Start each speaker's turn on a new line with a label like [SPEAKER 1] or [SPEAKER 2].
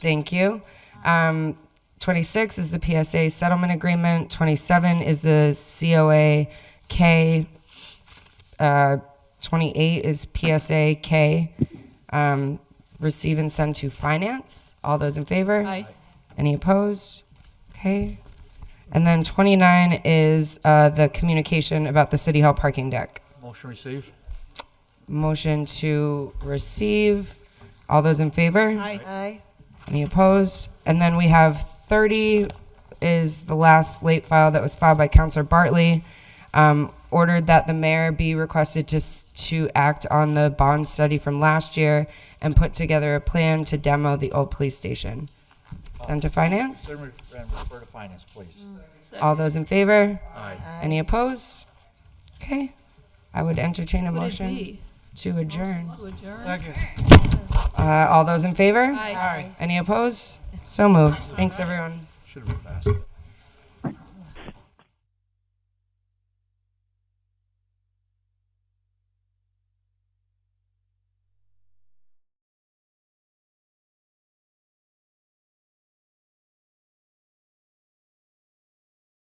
[SPEAKER 1] Thank you. Um, 26 is the PSA settlement agreement. 27 is the COA K. Uh, 28 is PSA K. Um, receive and send to finance. All those in favor?
[SPEAKER 2] Aye.
[SPEAKER 1] Any opposed? Okay. And then 29 is uh, the communication about the City Hall parking deck.
[SPEAKER 3] Motion receive.
[SPEAKER 1] Motion to receive. All those in favor?
[SPEAKER 2] Aye.
[SPEAKER 1] Any opposed? And then we have 30 is the last late file that was filed by Counselor Bartley. Um, ordered that the mayor be requested to, s- to act on the bond study from last year and put together a plan to demo the old police station. Send to finance.
[SPEAKER 3] Then re- then refer to finance, please.
[SPEAKER 1] All those in favor?
[SPEAKER 3] Aye.
[SPEAKER 1] Any opposed? Okay. I would entertain a
[SPEAKER 2] Would it
[SPEAKER 1] motion
[SPEAKER 2] be?
[SPEAKER 1] to adjourn.
[SPEAKER 2] To adjourn?
[SPEAKER 4] Second.
[SPEAKER 1] Uh, all those in favor?
[SPEAKER 2] Aye.
[SPEAKER 4] Aye.
[SPEAKER 1] Any opposed? So moved. Thanks, everyone.
[SPEAKER 3] Should have been faster.